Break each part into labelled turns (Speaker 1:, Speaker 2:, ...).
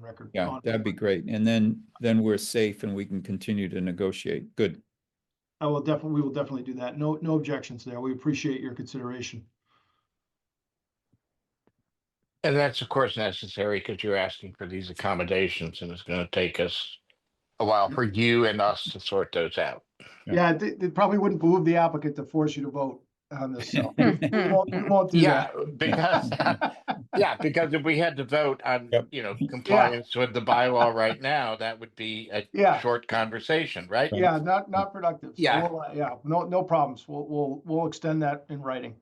Speaker 1: record.
Speaker 2: Yeah,
Speaker 1: on-
Speaker 2: that'd be great. And then, then we're safe and we can continue to negotiate. Good.
Speaker 1: I will definitely, we will definitely do that. No, no objections there. We appreciate your consideration.
Speaker 3: And that's of course necessary because you're asking for these accommodations and it's gonna take us a while for you and us to sort those out.
Speaker 1: Yeah, it, it probably wouldn't behoove the applicant to force you to vote on this, so. We won't, we won't do
Speaker 3: Yeah,
Speaker 1: that.
Speaker 3: because, yeah, because if we had to vote on,
Speaker 2: Yep.
Speaker 3: you know, compliance with the bylaw right now, that would be
Speaker 1: Yeah.
Speaker 3: a short conversation, right?
Speaker 1: Yeah, not, not productive. So
Speaker 3: Yeah.
Speaker 1: we'll, uh, Yeah, no, no problems. We'll, we'll, we'll extend that in writing.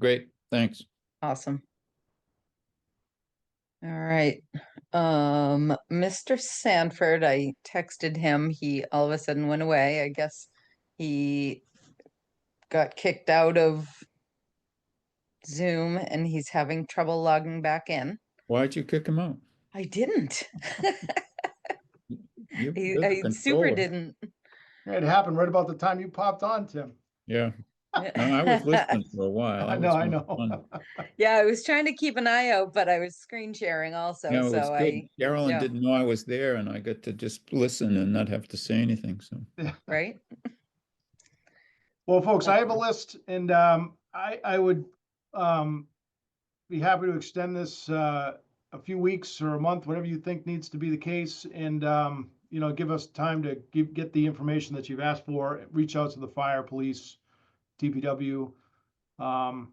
Speaker 2: Great, thanks.
Speaker 4: Awesome. All right, um, Mr. Sanford, I texted him, he all of a sudden went away, I guess he got kicked out of Zoom and he's having trouble logging back in.
Speaker 2: Why'd you kick him out?
Speaker 4: I didn't.
Speaker 2: You-
Speaker 4: He-
Speaker 2: you're the
Speaker 4: I uh, super
Speaker 2: controller.
Speaker 4: didn't.
Speaker 1: It happened right about the time you popped on, Tim.
Speaker 2: Yeah, no, I was listening for a while.
Speaker 1: I
Speaker 2: was
Speaker 1: know, I
Speaker 2: on-
Speaker 1: know.
Speaker 2: on-
Speaker 4: Yeah, I was trying to keep an eye out, but I was screen sharing also,
Speaker 2: Yeah, it was
Speaker 4: so
Speaker 2: good.
Speaker 4: I,
Speaker 2: Carolyn
Speaker 4: yeah.
Speaker 2: didn't know I was there and I got to just listen and not have to say anything, so.
Speaker 4: right?
Speaker 1: Well, folks, I have a list and um, I, I would um, be happy to extend this uh, a few weeks or a month, whatever you think needs to be the case. And, um, you know, give us time to give, get the information that you've asked for, reach out to the fire, police, DPW. Um,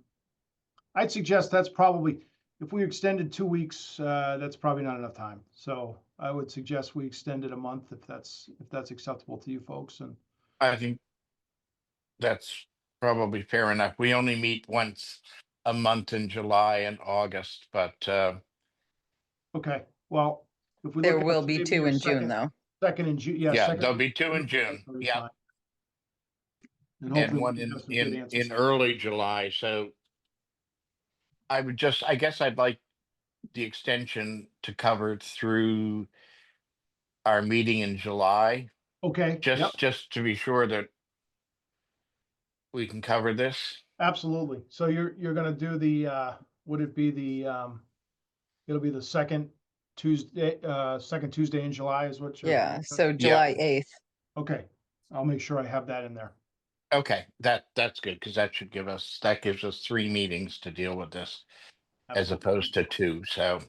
Speaker 1: I'd suggest that's probably, if we extended two weeks, uh, that's probably not enough time. So I would suggest we extend it a month if that's, if that's acceptable to you folks and
Speaker 3: I think that's probably fair enough. We only meet once a month in July and August, but uh,
Speaker 1: Okay, well. if we
Speaker 4: There
Speaker 1: look at
Speaker 4: will
Speaker 1: it,
Speaker 4: be
Speaker 1: maybe
Speaker 4: two
Speaker 1: your
Speaker 4: in June
Speaker 1: second-
Speaker 4: though.
Speaker 1: Second in June, yeah.
Speaker 3: yeah,
Speaker 1: second
Speaker 3: there'll
Speaker 1: in
Speaker 3: be two in
Speaker 1: June,
Speaker 3: June.
Speaker 1: that'll be
Speaker 3: Yeah,
Speaker 1: fine. And hopefully
Speaker 3: and
Speaker 1: we
Speaker 3: one
Speaker 1: can
Speaker 3: in
Speaker 1: have some good
Speaker 3: in
Speaker 1: answers.
Speaker 3: in early July. So I would just, I guess I'd like the extension to cover through our meeting in July.
Speaker 1: Okay, yep,
Speaker 3: just, just to be sure that we can cover this.
Speaker 1: absolutely. So you're, you're gonna do the, uh, would it be the, um, it'll be the second Tuesday, uh, second Tuesday in July is what you're.
Speaker 4: Yeah, so
Speaker 3: Yeah.
Speaker 4: July eighth.
Speaker 1: Okay, I'll make sure I have that in there.
Speaker 3: Okay, that, that's good, because that should give us, that gives us three meetings to deal with this as
Speaker 1: Absolutely.
Speaker 3: opposed to two, so.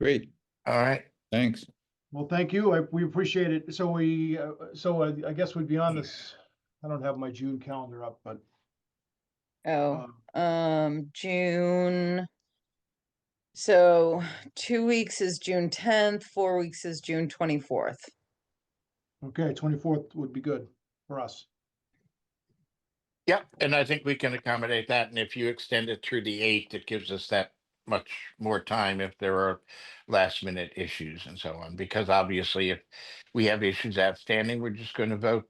Speaker 2: Great,
Speaker 3: All right,
Speaker 2: thanks.
Speaker 1: Well, thank you. I, we appreciate it. So we, uh, so I, I guess we'd be on this, I don't have my June calendar up, but,
Speaker 4: Oh,
Speaker 1: um,
Speaker 4: um, June. So two weeks is June tenth, four weeks is June twenty-fourth.
Speaker 1: okay, twenty-fourth would be good for us.
Speaker 3: yep, and I think we can accommodate that, and if you extend it through the eighth, it gives us that much more time if there are last minute issues and so on, because obviously if we have issues outstanding, we're just going to vote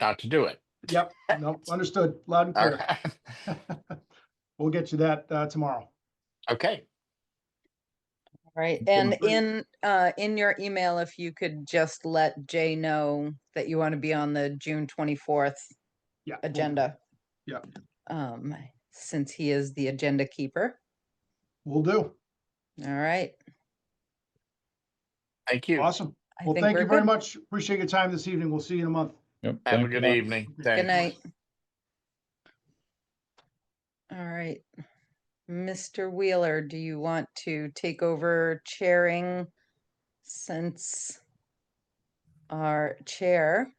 Speaker 3: not to do it.
Speaker 1: Yep, no, understood, loud and
Speaker 3: All
Speaker 1: clear.
Speaker 3: right.
Speaker 1: We'll get you that uh, tomorrow.
Speaker 3: Okay,
Speaker 4: Right,
Speaker 2: Okay.
Speaker 4: and in, uh, in your email, if you could just let Jay know that you want to be on the June twenty-fourth
Speaker 1: Yeah. we'll-
Speaker 4: agenda.
Speaker 1: Yeah.
Speaker 4: Um, since he is the agenda keeper.
Speaker 1: We'll do.
Speaker 4: All right.
Speaker 3: thank you.
Speaker 1: Awesome.
Speaker 4: I
Speaker 1: Well,
Speaker 4: think
Speaker 1: thank
Speaker 4: we're
Speaker 1: you very
Speaker 4: good.
Speaker 1: much. Appreciate your time this evening. We'll see you in a month.
Speaker 2: Yep,
Speaker 3: Have a
Speaker 2: thank
Speaker 3: good
Speaker 2: you.
Speaker 3: evening.
Speaker 4: Good
Speaker 3: Thanks.
Speaker 4: night. All right. Mr. Wheeler, do you want to take over chairing since our chair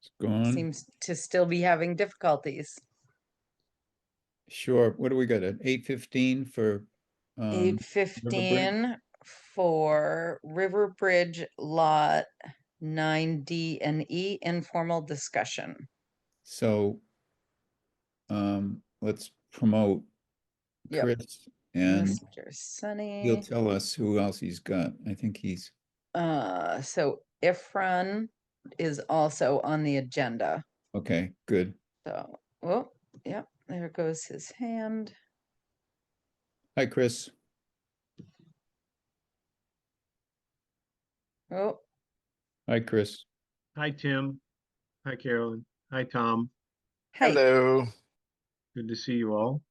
Speaker 2: It's Gone.
Speaker 4: seems to still be having difficulties?
Speaker 2: Sure, what do we got, at eight fifteen for? um,
Speaker 4: Eight fifteen for River Bridge Lot nine D and E informal discussion.
Speaker 2: So um, let's promote
Speaker 4: Yep.
Speaker 2: Chris and
Speaker 4: Mr.
Speaker 2: he'll
Speaker 4: Sunny,
Speaker 2: tell us who else he's got. I think he's,
Speaker 4: uh, so Efron is also on the agenda.
Speaker 2: okay, good.
Speaker 4: So, oh, yep, there goes his hand.
Speaker 2: Hi, Chris.
Speaker 4: Oh,
Speaker 2: Hi, Chris.
Speaker 5: Hi, Tim. Hi, Carolyn. Hi, Tom.
Speaker 4: hey,
Speaker 3: Hello.
Speaker 5: Good to see you all.